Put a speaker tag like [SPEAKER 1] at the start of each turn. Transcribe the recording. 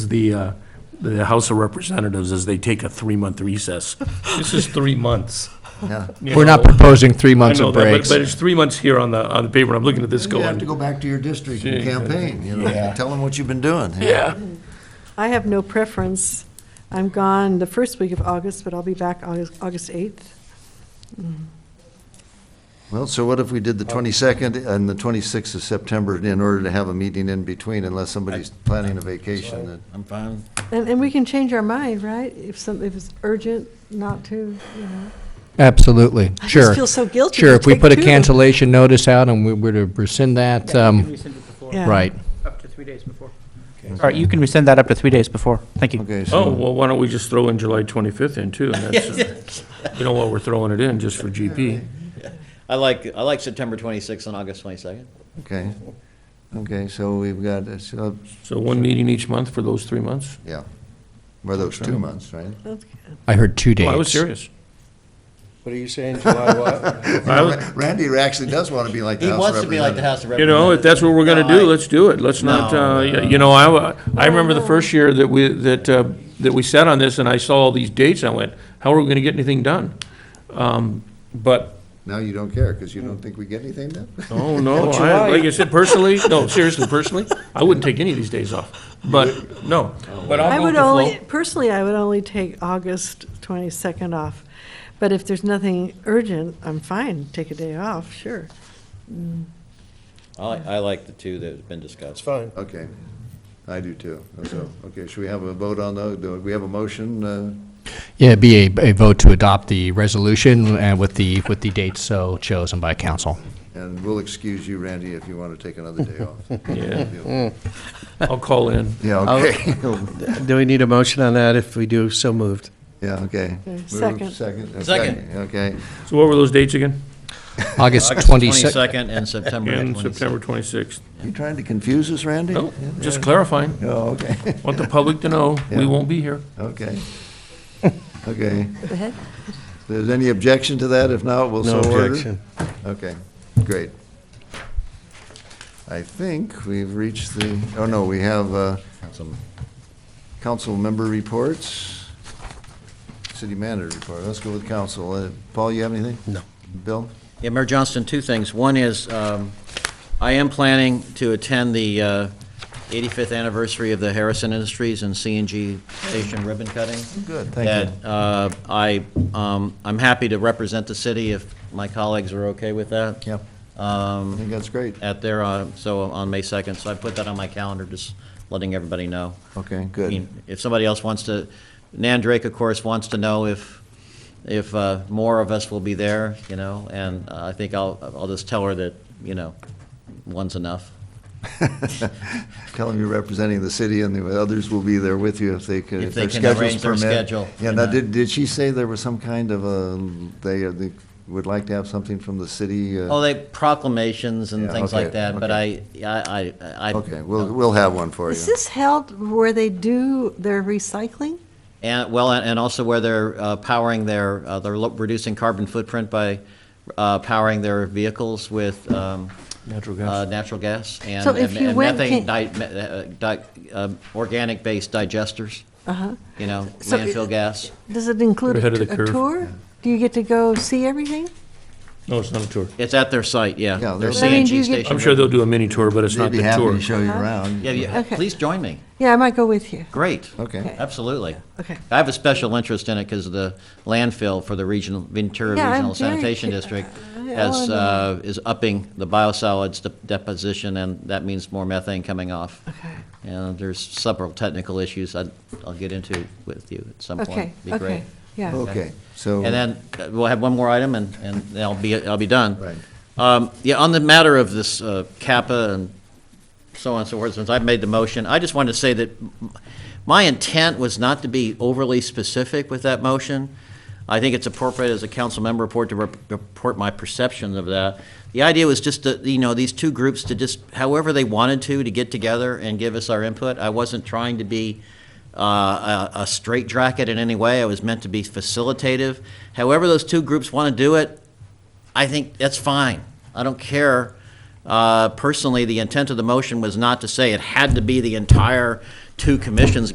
[SPEAKER 1] the, uh, the House of Representatives as they take a three-month recess. This is three months.
[SPEAKER 2] Yeah.
[SPEAKER 1] you
[SPEAKER 3] We're not
[SPEAKER 1] know.
[SPEAKER 3] proposing three
[SPEAKER 1] I
[SPEAKER 3] months
[SPEAKER 1] know
[SPEAKER 3] of
[SPEAKER 1] that, but-
[SPEAKER 3] breaks.
[SPEAKER 1] But it's three months here on the, on the paper, I'm looking at this
[SPEAKER 2] You have to
[SPEAKER 1] going,
[SPEAKER 2] go back to your district
[SPEAKER 1] Gee,
[SPEAKER 2] and campaign, you know,
[SPEAKER 3] yeah.
[SPEAKER 2] tell them what you've been doing.
[SPEAKER 1] yeah.
[SPEAKER 4] I have no preference. I'm gone the first week of August, but I'll be back August, August 8th.
[SPEAKER 2] Well, so what if we did the 22nd and the 26th of September in order to have a meeting in between unless somebody's planning a vacation? that-
[SPEAKER 5] I'm
[SPEAKER 1] Um,
[SPEAKER 5] fine.
[SPEAKER 4] And, and we can change our mind, right? If some, if it's urgent not to, you know.
[SPEAKER 3] Absolutely,
[SPEAKER 4] I just
[SPEAKER 3] sure.
[SPEAKER 4] feel so guilty
[SPEAKER 3] Sure,
[SPEAKER 4] to
[SPEAKER 3] if we
[SPEAKER 4] take
[SPEAKER 3] put a
[SPEAKER 4] two.
[SPEAKER 3] cancellation notice out and we were to rescind that,
[SPEAKER 6] Yeah, you can
[SPEAKER 3] um,
[SPEAKER 6] rescind it before,
[SPEAKER 4] Yeah.
[SPEAKER 3] right.
[SPEAKER 6] up to three days before. All right, you can rescind that up to three days before. Thank you.
[SPEAKER 2] Okay,
[SPEAKER 1] Oh,
[SPEAKER 2] so,
[SPEAKER 1] well, why don't we just throw in July 25th in too? and that's, uh, You know what, we're throwing it in just for GP.
[SPEAKER 7] I like, I like September 26th and August 22nd.
[SPEAKER 2] okay. Okay, so we've got, uh, so,
[SPEAKER 1] So one meeting each month for those three months?
[SPEAKER 2] yeah, were those two months, right?
[SPEAKER 4] That's-
[SPEAKER 3] I heard two dates.
[SPEAKER 1] Well, Oh, I was serious.
[SPEAKER 5] What are you saying, July what?
[SPEAKER 1] I was-
[SPEAKER 2] Randy actually does want to be like the
[SPEAKER 7] He
[SPEAKER 2] House
[SPEAKER 7] wants to be like the House of
[SPEAKER 1] You know, if
[SPEAKER 7] Representatives.
[SPEAKER 1] that's what we're gonna
[SPEAKER 7] No, I-
[SPEAKER 1] do, let's do it. Let's not,
[SPEAKER 7] No,
[SPEAKER 1] uh, you know, I, wa- I remember the first year that we, that, uh, that we sat on this and I saw all these dates, I went, how are we gonna get anything done? Um, But,
[SPEAKER 2] Now you don't care because you don't think we get anything done?
[SPEAKER 1] oh, no, I, like I said, personally, no, seriously, personally, I wouldn't take any of these days off. But, no, but
[SPEAKER 4] I
[SPEAKER 1] I'll go with
[SPEAKER 4] would
[SPEAKER 1] the
[SPEAKER 4] only,
[SPEAKER 1] flow.
[SPEAKER 4] personally, I would only take August 22nd off. But if there's nothing urgent, I'm fine, take a day off, sure.
[SPEAKER 7] I, like- I like the two that have been discussed.
[SPEAKER 5] fine.
[SPEAKER 2] Okay, I do too, so, okay, should we have a vote on those? Do we have a motion? uh,
[SPEAKER 3] Yeah, it'd be a, a vote to adopt the resolution and with the, with the dates so chosen by council.
[SPEAKER 2] And we'll excuse you, Randy, if you want to take another day off.
[SPEAKER 1] Yeah. I'll call in.
[SPEAKER 2] Yeah, okay.
[SPEAKER 5] Do we need a motion on that? If we do, so moved.
[SPEAKER 2] Yeah, okay.
[SPEAKER 4] Okay,
[SPEAKER 2] Move,
[SPEAKER 4] second.
[SPEAKER 2] Second. uh,
[SPEAKER 7] Second.
[SPEAKER 2] Okay,
[SPEAKER 1] So what were those dates again?
[SPEAKER 3] August
[SPEAKER 7] August
[SPEAKER 3] 22nd.
[SPEAKER 7] 22nd and September
[SPEAKER 1] And
[SPEAKER 7] 26th.
[SPEAKER 1] September twenty-sixth.
[SPEAKER 2] you trying to confuse us, Randy?
[SPEAKER 1] No, just clarifying.
[SPEAKER 2] Oh, okay,
[SPEAKER 1] Want the public to know, we
[SPEAKER 2] Yeah.
[SPEAKER 1] won't be here.
[SPEAKER 2] okay. Okay,
[SPEAKER 4] Go ahead.
[SPEAKER 2] if there's any objection to that, if not, we'll so
[SPEAKER 5] No
[SPEAKER 2] order.
[SPEAKER 5] objection.
[SPEAKER 2] Okay, great. I think we've reached the, oh no, we have uh,
[SPEAKER 7] Some-
[SPEAKER 2] council member reports, city manager report, let's go with council. Uh, Paul, you have anything? No. Bill?
[SPEAKER 7] Yeah, Mayor Johnston, two things. One is, um, I am planning to attend the uh, 85th anniversary of the Harrison Industries and CNG Station ribbon cutting.
[SPEAKER 2] Good, thank you.
[SPEAKER 7] That uh, I, um, I'm happy to represent the city if my colleagues are okay with that.
[SPEAKER 2] Yep, I
[SPEAKER 7] Um,
[SPEAKER 2] think that's great,
[SPEAKER 7] at their, uh, so on May 2nd, so I put that on my calendar, just letting everybody know.
[SPEAKER 2] okay,
[SPEAKER 7] I
[SPEAKER 2] good.
[SPEAKER 7] mean, If somebody else wants to, Nan Drake, of course, wants to know if, if uh, more of us will be there, you know, and uh, I think I'll, I'll just tell her that, you know, one's enough.
[SPEAKER 2] Tell them you're representing the city and the others will be there with you if they could,
[SPEAKER 7] If
[SPEAKER 2] if
[SPEAKER 7] they
[SPEAKER 2] their
[SPEAKER 7] can
[SPEAKER 2] schedules
[SPEAKER 7] arrange their
[SPEAKER 2] permit.
[SPEAKER 7] schedule,
[SPEAKER 2] Yeah,
[SPEAKER 7] you
[SPEAKER 2] now,
[SPEAKER 7] know.
[SPEAKER 2] did, did she say there was some kind of a, they, they would like to have something from the city? uh,
[SPEAKER 7] Oh, they proclamations and
[SPEAKER 2] Yeah,
[SPEAKER 7] things
[SPEAKER 2] okay,
[SPEAKER 7] like that, but I,
[SPEAKER 2] okay.
[SPEAKER 7] I, I. I-
[SPEAKER 2] Okay, we'll, we'll have one for you.
[SPEAKER 4] Is this held where they do their recycling?
[SPEAKER 7] And, well, and and also where they're uh, powering their, uh, they're lo- reducing carbon footprint by uh, powering their vehicles with um,
[SPEAKER 1] Natural
[SPEAKER 7] uh, natural gas and
[SPEAKER 4] So if
[SPEAKER 7] and-
[SPEAKER 4] you
[SPEAKER 7] and
[SPEAKER 4] went-
[SPEAKER 7] methane,
[SPEAKER 4] can-
[SPEAKER 7] di- me- uh, di- um, organic-based digesters,
[SPEAKER 4] Uh-huh.
[SPEAKER 7] you know,
[SPEAKER 4] So it-
[SPEAKER 7] landfill gas.
[SPEAKER 4] Does it include
[SPEAKER 1] We're ahead of the
[SPEAKER 4] a
[SPEAKER 1] curve.
[SPEAKER 4] tour? Do you get to go see everything?
[SPEAKER 1] No, it's not a tour.
[SPEAKER 7] It's at their site, yeah.
[SPEAKER 2] Yeah,
[SPEAKER 7] Their
[SPEAKER 2] they'll- I
[SPEAKER 4] mean, do you
[SPEAKER 7] CNG
[SPEAKER 4] get-
[SPEAKER 7] station.
[SPEAKER 1] I'm sure they'll do a mini tour, but it's
[SPEAKER 2] They'd
[SPEAKER 1] not
[SPEAKER 2] be
[SPEAKER 1] the
[SPEAKER 2] happy
[SPEAKER 1] tour.
[SPEAKER 2] to show you
[SPEAKER 4] Huh?
[SPEAKER 2] around.
[SPEAKER 7] Yeah, yeah,
[SPEAKER 4] Okay.
[SPEAKER 7] please join me.
[SPEAKER 4] Yeah, I might go with you.
[SPEAKER 7] Great.
[SPEAKER 2] Okay,
[SPEAKER 7] Absolutely.
[SPEAKER 4] Okay.
[SPEAKER 7] I have a special interest in it because the landfill for the regional, Ventura
[SPEAKER 4] Yeah, I'm
[SPEAKER 7] Regional
[SPEAKER 4] very
[SPEAKER 7] Sanitation
[SPEAKER 4] cu-
[SPEAKER 7] District
[SPEAKER 4] I- I
[SPEAKER 7] has,
[SPEAKER 4] wanna know.
[SPEAKER 7] uh, is upping the biosolids de- deposition, and that means more methane coming off.
[SPEAKER 4] Okay.
[SPEAKER 7] And there's several technical issues I'd- I'll get into with you at some point.
[SPEAKER 4] Okay,
[SPEAKER 7] Be great.
[SPEAKER 4] okay, yeah.
[SPEAKER 2] okay, so.
[SPEAKER 7] And then uh, we'll have one more item, and, and I'll be, I'll be done.
[SPEAKER 2] Right.
[SPEAKER 7] Um, Yeah, on the matter of this uh, Kappa and so on and so forth, since I've made the motion, I just wanted to say that m- my intent was not to be overly specific with that motion. I think it's appropriate as a council member report to rep- report my perception of that. The idea was just to, you know, these two groups to just, however they wanted to, to get together and give us our input. I wasn't trying to be uh, a a straitjacket in any way. I was meant to be facilitative. However those two groups want to do it, I think that's fine. I don't care. Uh, Personally, the intent of the motion was not to say it had to be the entire two commissions